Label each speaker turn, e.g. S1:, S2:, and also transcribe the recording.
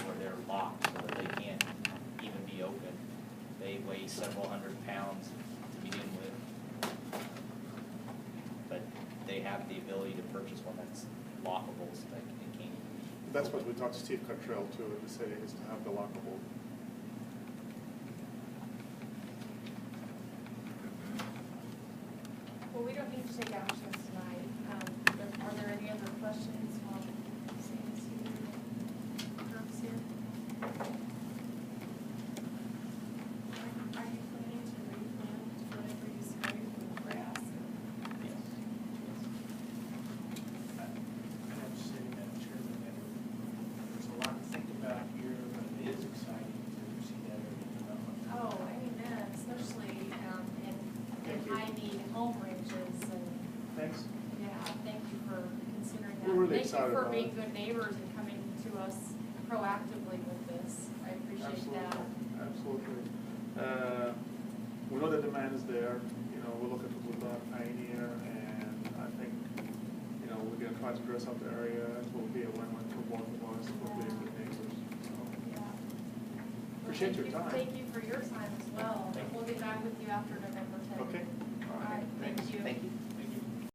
S1: purchase one that's lockable so that it can.
S2: That's what we talked to Steve Cottrell too, in the city, is to have the lockable.
S3: Well, we don't need to take actions tonight. Um, but Are there any other questions while Sam's here? Herb's here? Are- Are you planning to replant whatever you sprayed with grass?
S1: Yes.
S4: I I have to say, Madam Chairman, that there's a lot to think about here, but it is exciting to see that area develop.
S3: Oh, I mean, that, especially um, in
S4: Thank
S3: in
S4: you.
S3: high-need home ranges and,
S4: Thanks.
S3: yeah, thank you for considering that.
S2: We're really excited
S3: Thank you for
S2: about
S3: being
S2: it.
S3: good neighbors and coming to us proactively with this. I appreciate
S2: Absolutely,
S3: that.
S2: Absolutely. Uh, We know the demand is there, you know, we look at Woodlawn Pioneer, and I think, you know, we're gonna try to dress up the area, it will be a win-win for both of us, we'll be good neighbors, so.
S3: Yeah. Well,
S2: Appreciate
S3: thank
S2: your
S3: you-
S2: time.
S3: Thank you for your time as well.
S1: Thank you.
S3: We'll get back with you after November 10th.
S2: Okay?
S3: All right, thank you.
S1: Thank you.